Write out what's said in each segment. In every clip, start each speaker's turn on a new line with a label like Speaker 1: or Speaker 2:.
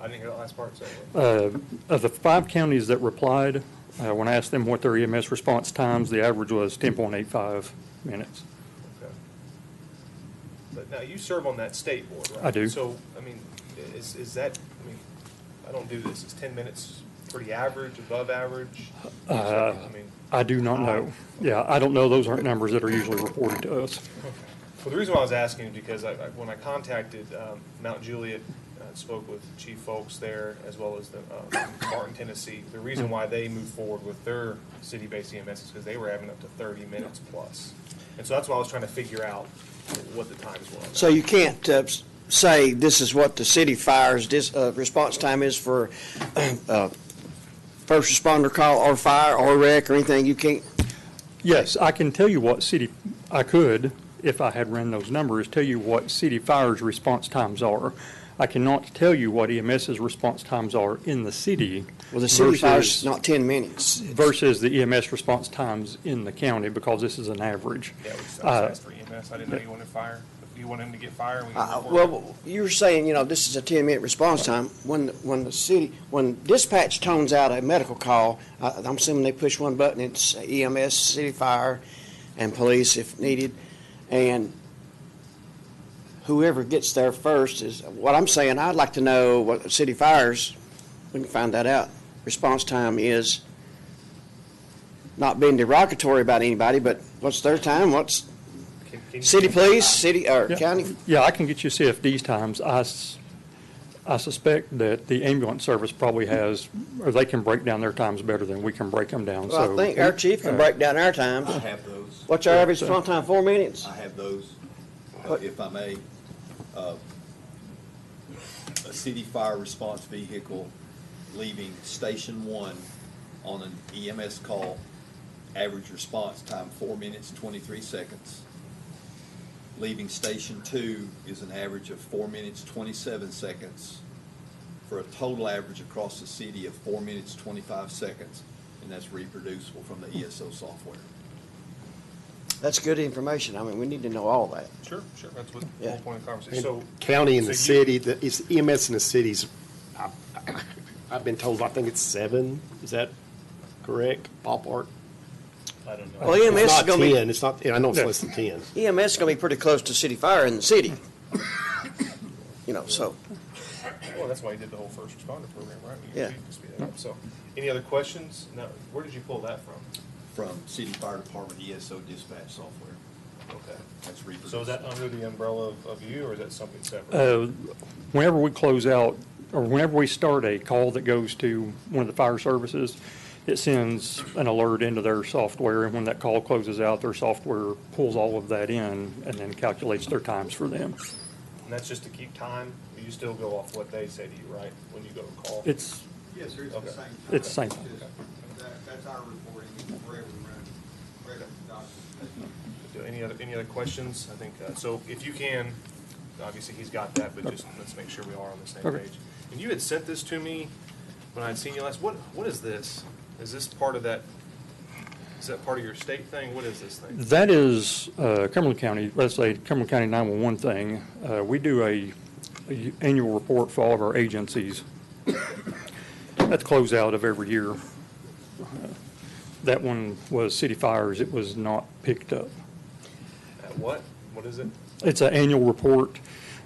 Speaker 1: I didn't hear that last part, so.
Speaker 2: Uh, Of the five counties that replied, uh, when I asked them what their EMS response times, the average was 10.85 minutes.
Speaker 1: Okay. But now, you serve on that state board, right?
Speaker 2: I do.
Speaker 1: So, I mean, is, is that, I mean, I don't do this, is ten minutes pretty average, above average?
Speaker 2: Uh,
Speaker 1: I mean, Oh.
Speaker 2: I do not know. Yeah, I don't know. Those aren't numbers that are usually reported to us.
Speaker 1: Well, the reason why I was asking is because I, I- when I contacted um, Mount Juliet, uh, spoke with Chief Folks there, as well as the um, Martin, Tennessee, the reason why they moved forward with their city-based EMS is because they were having up to 30 minutes plus. And so that's why I was trying to figure out what the times were. on that.
Speaker 3: So you can't uh, s- say this is what the city fires, this uh, response time is for uh, first responder call or fire or wreck or anything. You can't,
Speaker 2: Yes, I can tell you what city, I could, if I had ran those numbers, tell you what city fires response times are. I cannot tell you what EMS's response times are in the city.
Speaker 3: well, the city fires
Speaker 2: versus-
Speaker 3: not 10 minutes.
Speaker 2: Versus the EMS response times in the county, because this is an average.
Speaker 1: Yeah, we just
Speaker 2: Uh,
Speaker 1: asked for EMS. I didn't know you wanted fire. If you wanted him to get fire, we can
Speaker 3: Uh,
Speaker 1: report. it.
Speaker 3: Well, you're saying, you know, this is a 10-minute response time. When, when the city, when dispatch tones out a medical call, I- I'm assuming they push one button, it's EMS, city fire, and police if needed, and whoever gets there first is, what I'm saying, I'd like to know what the city fires, we can find that out, response time is, not being derogatory about anybody, but what's their time, what's
Speaker 1: Can- can you-
Speaker 3: city police, city, or
Speaker 2: Yeah.
Speaker 3: county
Speaker 2: Yeah, I can get you CFD's times. I, s- I suspect that the ambulance service probably has, or they can break down their times better than we can break them down, so.
Speaker 3: Well, I think our chief can break down our times.
Speaker 4: I have those.
Speaker 3: What's our average response time, four minutes?
Speaker 4: I have those, uh,
Speaker 3: What-
Speaker 4: if I may. Uh, A city fire response vehicle leaving Station One on an EMS call, average response time, four minutes, twenty-three seconds. Leaving Station Two is an average of four minutes, twenty-seven seconds, for a total average across the city of four minutes, twenty-five seconds, and that's reproducible from the ESO software.
Speaker 3: That's good information. I mean, we need to know all that.
Speaker 1: Sure, sure. That's what the
Speaker 3: Yeah.
Speaker 1: whole point of the conversation. So,
Speaker 5: And County and the
Speaker 1: so you-
Speaker 5: city, the- it's EMS in the cities, I- I've been told, I think it's seven, is that correct, ballpark?
Speaker 1: I don't know.
Speaker 3: Well, EMS is gonna
Speaker 5: It's not
Speaker 3: be,
Speaker 5: ten, it's not, I know it's
Speaker 2: Yeah.
Speaker 5: less than ten.
Speaker 3: EMS is gonna be pretty close to city fire in the city. You know, so,
Speaker 1: Well, that's why you did the whole first responder program, right? We-
Speaker 3: Yeah.
Speaker 1: we can speed that up. So, any other questions? No. Where did you pull that from?
Speaker 4: from City Fire Department ESO dispatch software.
Speaker 1: Okay.
Speaker 4: That's
Speaker 1: So is
Speaker 4: reproduced.
Speaker 1: that under the umbrella of, of you, or is that something separate?
Speaker 5: Oh.
Speaker 2: Uh, Whenever we close out, or whenever we start a call that goes to one of the fire services, it sends an alert into their software, and when that call closes out, their software pulls all of that in and then calculates their times for them.
Speaker 1: and that's just to keep time. Or you still go off what they say to you, right? When you go to call.
Speaker 2: It's,
Speaker 6: Yes, sir, it's the
Speaker 1: Okay.
Speaker 6: same time.
Speaker 2: It's the same time.
Speaker 6: Just that- That's our reporting, wherever we run, wherever the documents.
Speaker 1: Do any other any other questions? I think uh, so. If you can, obviously he's got that, but just let's make sure we are on the same
Speaker 2: Okay.
Speaker 1: page. And you had sent this to me when I had seen you last. What what is this? Is this part of that? Is that part of your state thing? What is this thing?
Speaker 2: that is uh, Cumberland County, let's say Cumberland County 911 thing. Uh, We do a a annual report for all of our agencies. That's close out of every year. That one was city fires. It was not picked up.
Speaker 1: Uh, what? What is it?
Speaker 2: It's an annual report.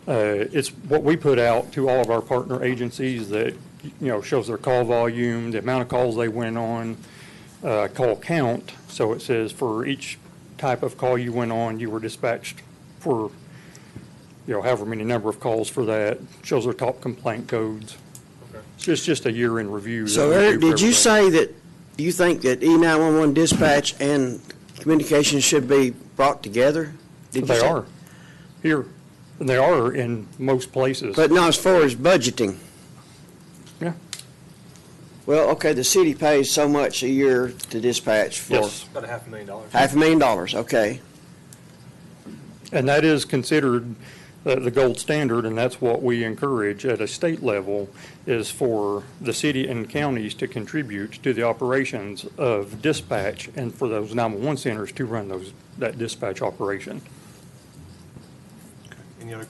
Speaker 2: Uh, It's what we put out to all of our partner agencies that, you know, shows their call volume, the amount of calls they went on, uh, call count. So it says for each type of call you went on, you were dispatched for, you know, however many number of calls for that, shows their top complaint codes.
Speaker 1: Okay.
Speaker 2: It's just, just a year in review. that
Speaker 3: so
Speaker 2: we do
Speaker 3: Eric,
Speaker 2: for
Speaker 3: did you
Speaker 2: everybody.
Speaker 3: say that you think that E nine-one-one dispatch and communications should be brought together? Did you
Speaker 2: They
Speaker 3: say-
Speaker 2: are here, and they are in most places.
Speaker 3: But not as far as budgeting.
Speaker 2: Yeah.
Speaker 3: Well, okay, the city pays so much a year to dispatch for
Speaker 2: Yes.
Speaker 1: About a half a million dollars.
Speaker 3: half a million dollars, okay?
Speaker 2: And that is considered uh, the gold standard, and that's what we encourage at a state level, is for the city and counties to contribute to the operations of dispatch and for those 911 centers to run those, that dispatch operation.